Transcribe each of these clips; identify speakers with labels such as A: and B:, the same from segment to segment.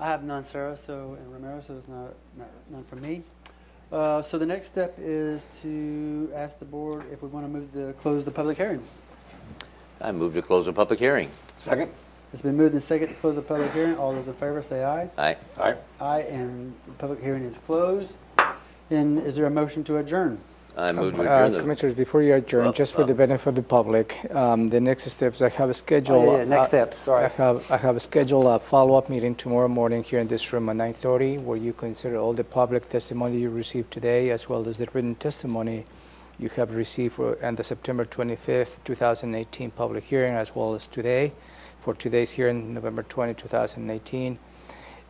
A: I have none, Sarah, so, and Romero, so it's not, not- none from me. Uh, So the next step is to ask the board if we want to move to close the public hearing.
B: I move to close the public hearing.
C: Second?
A: It's been moved and second to close the public hearing. All those in favor say aye.
B: Aye.
C: All right.
A: Aye, and the public hearing is closed. And is there a motion to adjourn?
B: I move to
D: Uh,
B: adjourn the.
D: Commissioners, before you
B: Well,
D: adjourn, just for
B: uh,
D: the benefit of the public, um, the next steps, I have a schedule.
A: Oh, yeah, next
D: uh,
A: steps, sorry.
D: I have, I have scheduled a follow-up meeting tomorrow morning here in this room at 9:30, where you consider all the public testimony you received today, as well as the written testimony you have received for- and the September 25th, 2018 public hearing, as well as today, for today's hearing, November 20, 2018.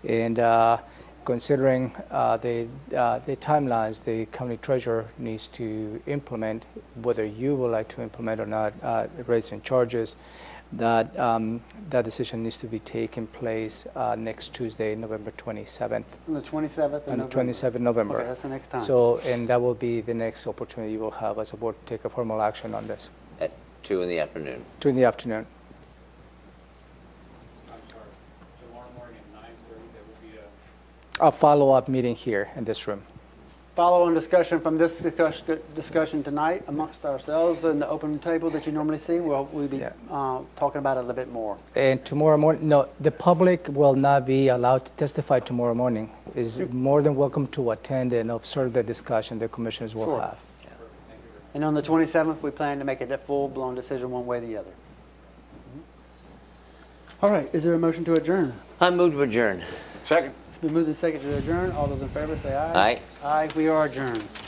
D: And uh, considering uh, the uh, the timelines the county treasurer needs to implement, whether you would like to implement or not, uh, raising charges, that um, that decision needs to be taken place uh, next Tuesday, November 27th,
A: On the 27th of
D: and
A: November?
D: the 27th November.
A: Okay, that's the next time.
D: So, and that will be the next opportunity you will have as a board to take a formal action on this,
B: At two in the afternoon.
D: two in the afternoon.
E: I'm sorry, tomorrow morning at nine thirty, there will be a
D: A follow-up meeting here in this room.
A: Follow-on discussion from this discuss- discussion tonight amongst ourselves and the open table that you normally see, we'll, we'll be
D: Yeah.
A: uh, talking about it a little bit more.
D: And tomorrow morning, no, the public will not be allowed to testify tomorrow morning. Is more than welcome to attend and observe the discussion the commissioners will
A: Sure.
D: have.
A: And on the 27th, we plan to make it a full-blown decision one way or the other. All right, is there a motion to adjourn?
B: I move to adjourn.
C: Second?
A: It's been moved and seconded to adjourn. All those in favor say aye.
B: Aye.
A: Aye, we are adjourned.